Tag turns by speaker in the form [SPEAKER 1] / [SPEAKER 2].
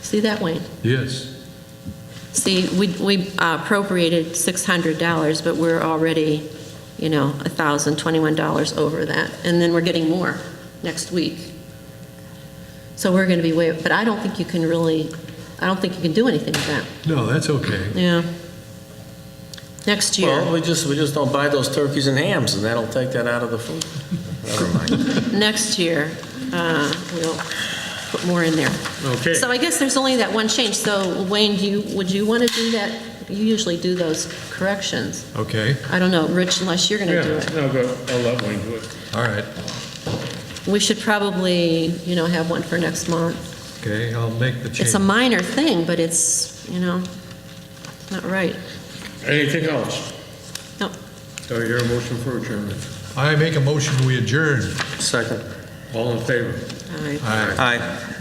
[SPEAKER 1] See that, Wayne?
[SPEAKER 2] Yes.
[SPEAKER 1] See, we we appropriated $600, but we're already, you know, $1,021 over that, and then we're getting more next week. So we're going to be way, but I don't think you can really, I don't think you can do anything with that,
[SPEAKER 2] No, that's okay.
[SPEAKER 1] yeah. Next year,
[SPEAKER 3] Well, we just, we just don't buy those turkeys and hams, and that'll take that out of the food. Never mind.
[SPEAKER 1] next year, uh, we'll put more in there.
[SPEAKER 3] Okay.
[SPEAKER 1] So I guess there's only that one change, so Wayne, do you, would you want to do that? You usually do those corrections.
[SPEAKER 2] Okay,
[SPEAKER 1] I don't know, Rich, unless you're going to do it.
[SPEAKER 4] Yeah, no, go, I'll let Wayne do it.
[SPEAKER 2] all right.
[SPEAKER 1] We should probably, you know, have one for next month.
[SPEAKER 2] Okay, I'll make the change.
[SPEAKER 1] It's a minor thing, but it's, you know, not right.
[SPEAKER 4] Anything else?
[SPEAKER 1] No.
[SPEAKER 4] Do I hear a motion for adjournment?
[SPEAKER 2] I make a motion, we adjourn.
[SPEAKER 3] Second.
[SPEAKER 4] All in favor?
[SPEAKER 1] All right.
[SPEAKER 2] Aye.
[SPEAKER 3] Aye.